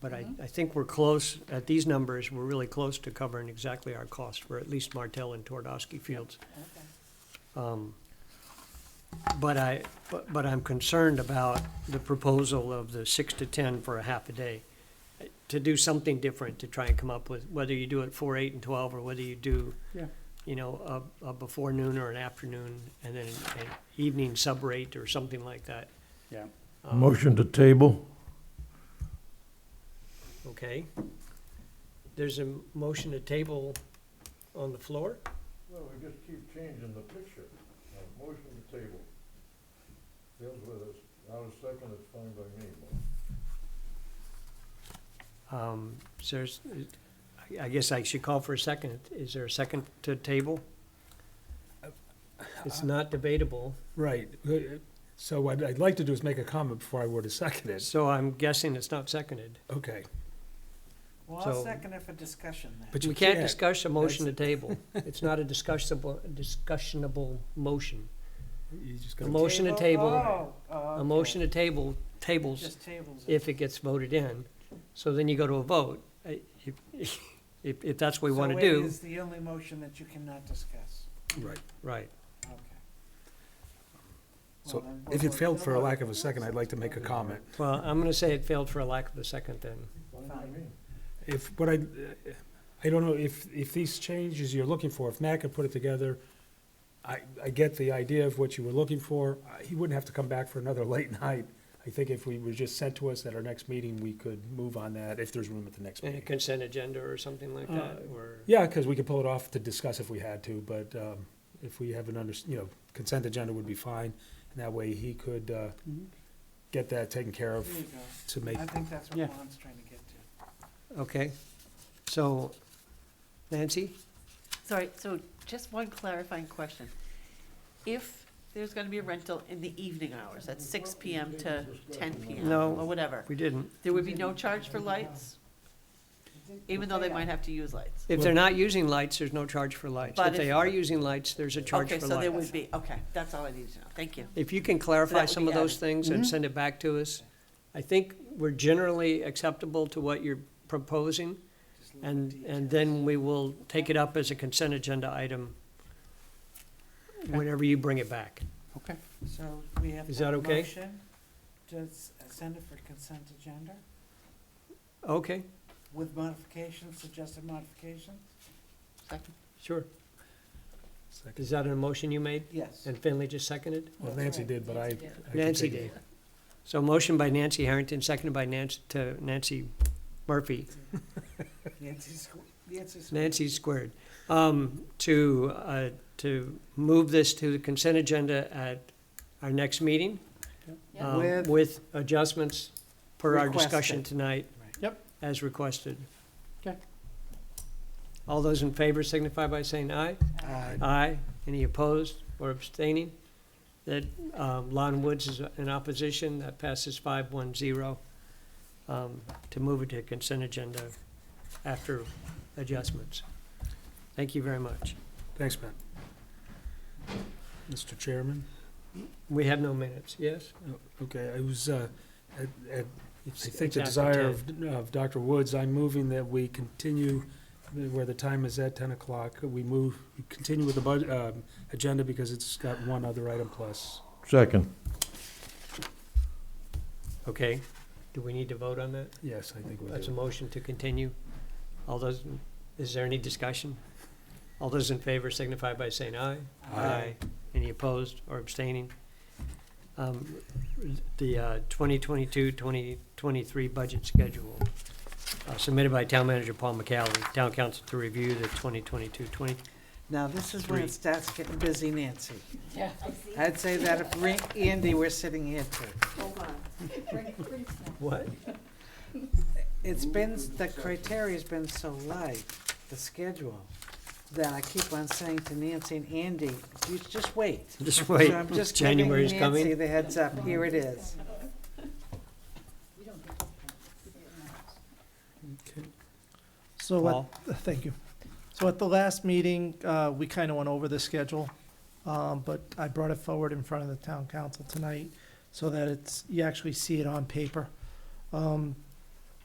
But I, I think we're close, at these numbers, we're really close to covering exactly our cost for at least Martell and Twardowski Fields. Okay. Um, But I, but, but I'm concerned about the proposal of the six to ten for a half a day. Uh, To do something different, to try and come up with, whether you do it four, eight, and twelve, or whether you do, Yeah. you know, a, a before noon or an afternoon, and then an an evening sub rate or something like that. Yeah. Um, Motion to table? Okay. There's a motion to table on the floor? Well, we just keep changing the picture. Uh, Motion to table. Deals with us. Now a second, it's fine by me. Um, so there's, I, I guess I should call for a second. Is there a second to table? It's not debatable, Right. Uh, So what I'd like to do is make a comment before I were to second it. so I'm guessing it's not seconded. Okay. Well, I'll So- second it for discussion then. But We you can't can't. discuss a motion to table. It's not a discussable, discussionable motion. You just A gotta- motion to table, Oh, oh, okay. a motion to table tables Just tables. it. if it gets voted in. So then you go to a vote. I- If, if, if that's what we want to So it do, is the only motion that you cannot discuss. Right. right. Okay. So Well, then If we'll it failed vote. for a lack of a second, I'd like to make a comment. Well, I'm going to say it failed for a lack of a second then. Fine by me. If, what I, I don't know if, if these changes you're looking for, if Matt could put it together, I, I get the idea of what you were looking for. I- He wouldn't have to come back for another late night. I think if we were just sent to us at our next meeting, we could move on that if there's room at the next And a meeting. consent agenda or something like that, or, Yeah, because we could pull it off to discuss if we had to, but um, if we have an under, you know, consent agenda would be fine. And that way he could uh, Mhm. Mm-hmm. get that taken care of There you to make, go. I think that's Yeah. what Lon's trying to get to. okay. So, Nancy? Sorry, so just one clarifying question. If there's gonna be a rental in the evening hours, at six PM to ten PM No. or whatever, We didn't. there would be no charge for lights, even though they might have to use lights? If they're not using lights, there's no charge for lights. If But they if- are using lights, there's a charge Okay, for so there would lights. be, okay, that's all I needed to know, thank you. If you can clarify would some be of those added. Mm-hmm. things and send it back to us, I think we're generally acceptable to what you're proposing, Just little and, and details. then we will take it up as a consent agenda item whenever you bring it back. Okay. So we have. Is to that have a okay? motion To s- uh, send it for consent agenda Okay, with modifications, suggested modifications? Second. sure. second. Is that a motion you made? Yes. And Finley just seconded? well, Nancy did, but I. I could Nancy take did. it. So motion by Nancy Harrington, seconded by Nancy, to Nancy Murphy, Nancy's, Nancy's. Nancy squared, um, to, uh, to move this to the consent agenda at our next meeting. Yep. um, With- With adjustments per our discussion Requested. tonight. Yep. As requested. Okay. All those in favor signify by saying aye. Aye. Aye. Any opposed or abstaining? That, um, Lon Woods is in opposition, that passes five one zero, um, to move it to consent agenda after adjustments. Thank you very much. Thanks, Matt. Mr. Chairman, We have no minutes, yes? okay, I was, uh, at, at I think It's after the desire 10. of, of Dr. Woods, I'm moving that we continue where the time is at, ten o'clock. We move, we continue with the bud, uh, agenda because it's got one other item plus. Second. Okay, do we need to vote on that? Yes, I think we That's a do. motion to continue. All those, is there any discussion? All those in favor signify by saying aye. Aye. Any opposed or abstaining? Um, The uh, 2022, 2023 budget schedule uh, submitted by Town Manager Paul McCallum, Town Council to review the 2022, 20. Now, this is when Three. it starts getting busy, Nancy. Yeah. I'd say that if Ra- Andy were sitting here too. Hold on. What? It's been, the criteria's been so light, the schedule, that I keep on saying to Nancy and Andy, you just wait. Just wait, So I'm just giving January's Nancy coming. the heads up, here it is. So, at- Paul, thank you. So at the last meeting, uh, we kind of went over the schedule, um, but I brought it forward in front of the town council tonight so that it's, you actually see it on paper. Um,